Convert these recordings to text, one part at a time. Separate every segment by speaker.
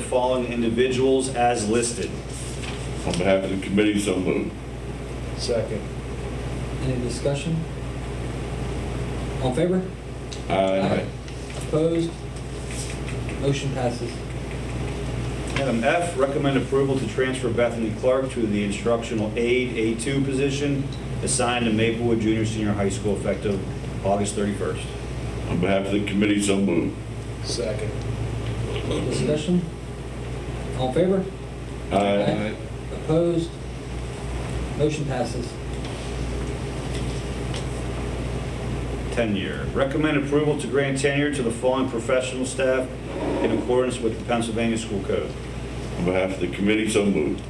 Speaker 1: following individuals as listed.
Speaker 2: On behalf of the committee, so moved.
Speaker 3: Second.
Speaker 4: Any discussion? All in favor?
Speaker 2: Aye.
Speaker 4: Opposed? Motion passes.
Speaker 1: Item F, recommend approval to transfer Bethany Clark to the instructional aide A2 position assigned to Maplewood Junior Senior High School effective August 31st.
Speaker 2: On behalf of the committee, so moved.
Speaker 3: Second.
Speaker 4: Discussion? All in favor?
Speaker 2: Aye.
Speaker 4: Opposed? Motion passes.
Speaker 1: 10-year. Recommend approval to grant tenure to the following professional staff in accordance with the Pennsylvania School Code.
Speaker 2: On behalf of the committee, so moved.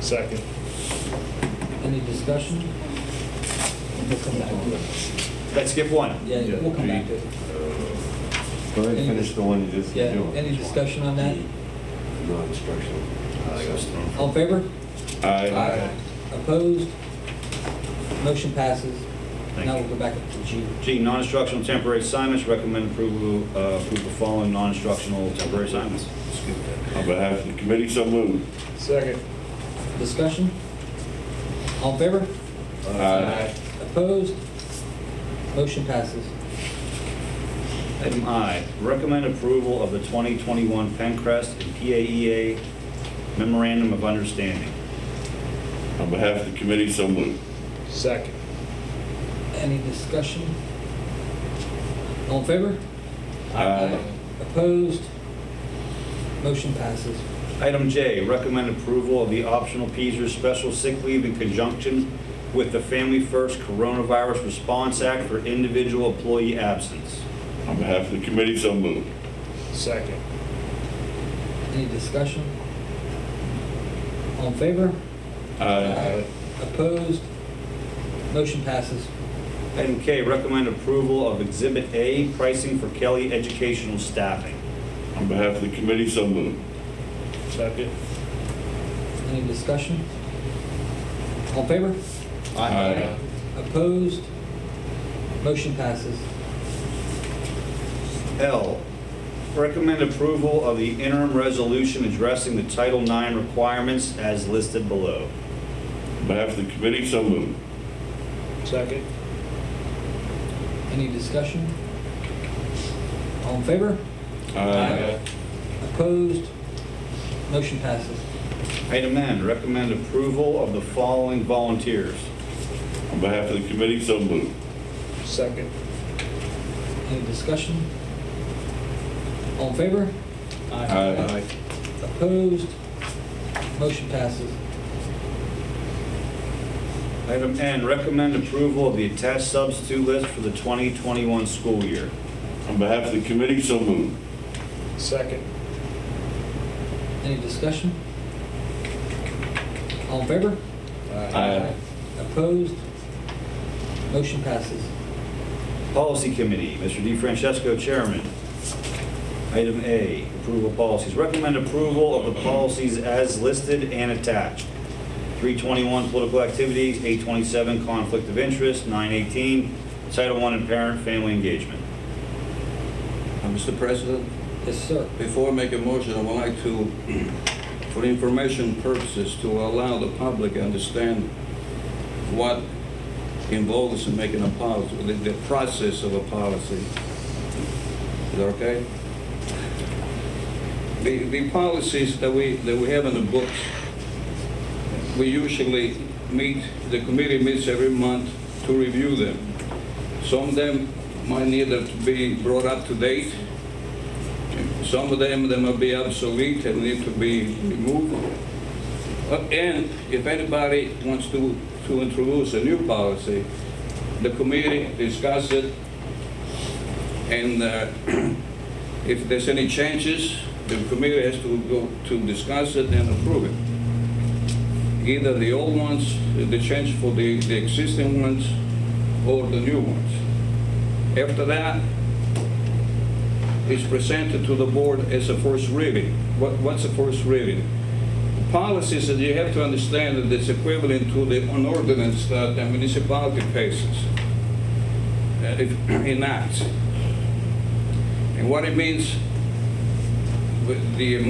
Speaker 3: Second.
Speaker 4: Any discussion? We'll come back to it.
Speaker 1: Let's skip one.
Speaker 4: Yeah, we'll come back to it.
Speaker 5: Go ahead and finish the one you just
Speaker 4: Yeah,
Speaker 5: did.
Speaker 4: any discussion on that?
Speaker 5: No instructional.
Speaker 1: Uh,
Speaker 4: All in favor?
Speaker 2: Aye.
Speaker 4: Opposed? Motion passes.
Speaker 1: Thank
Speaker 4: Now
Speaker 1: you.
Speaker 4: we'll go back up to G.
Speaker 1: G, non-instructional temporary assignments. Recommend approval, uh, approve the following non-instructional temporary assignments.
Speaker 2: On behalf of the committee, so moved.
Speaker 3: Second.
Speaker 4: Discussion? All in favor?
Speaker 2: Aye.
Speaker 4: Opposed? Motion passes.
Speaker 1: Item I, recommend approval of the 2021 Pencrest and PAEA Memorandum of Understanding.
Speaker 2: On behalf of the committee, so moved.
Speaker 3: Second.
Speaker 4: Any discussion? All in favor?
Speaker 2: Aye.
Speaker 4: Opposed? Motion passes.
Speaker 1: Item J, recommend approval of the optional PZER special sick leave in conjunction with the Family First Coronavirus Response Act for individual employee absence.
Speaker 2: On behalf of the committee, so moved.
Speaker 3: Second.
Speaker 4: Any discussion? All in favor?
Speaker 2: Aye.
Speaker 4: Opposed? Motion passes.
Speaker 1: Item K, recommend approval of Exhibit A, pricing for Kelly educational staffing.
Speaker 2: On behalf of the committee, so moved.
Speaker 3: Second.
Speaker 4: Any discussion? All in favor?
Speaker 2: Aye.
Speaker 4: Opposed? Motion passes.
Speaker 1: L, recommend approval of the interim resolution addressing the Title IX requirements as listed below.
Speaker 2: On behalf of the committee, so moved.
Speaker 3: Second.
Speaker 4: Any discussion? All in favor?
Speaker 2: Aye.
Speaker 4: Opposed? Motion passes.
Speaker 1: Item N, recommend approval of the following volunteers.
Speaker 2: On behalf of the committee, so moved.
Speaker 3: Second.
Speaker 4: Any discussion? All in favor?
Speaker 2: Aye.
Speaker 4: Opposed? Motion passes.
Speaker 1: Item N, recommend approval of the attached substitute list for the 2021 school year.
Speaker 2: On behalf of the committee, so moved.
Speaker 3: Second.
Speaker 4: Any discussion? All in favor?
Speaker 2: Aye.
Speaker 4: Opposed? Motion passes.
Speaker 1: Policy Committee, Mr. D. Francesco, Chairman. Item A, approval of policies. Recommend approval of the policies as listed and attached. 321, political activities, 827, conflict of interest, 918, Title I, and parent family engagement.
Speaker 6: Uh, Mr. President,
Speaker 4: Yes, sir.
Speaker 6: before I make a motion, I would like to, for information purposes, to allow the public to understand what involves in making a policy, the- the process of a policy. Is that okay? The, the policies that we, that we have in the books, we usually meet, the committee meets every month to review them. Some of them might need to be brought up to date, some of them, they may be obsolete and need to be removed. Uh, And if anybody wants to, to introduce a new policy, the committee discusses it, and uh, if there's any changes, the committee has to go to discuss it and approve it. Either the old ones, the change for the, the existing ones, or the new ones. After that, is presented to the board as a first reading. What, what's a first reading? Policies that you have to understand that it's equivalent to the an ordinance that the municipality faces, uh, if enacts. And what it means with the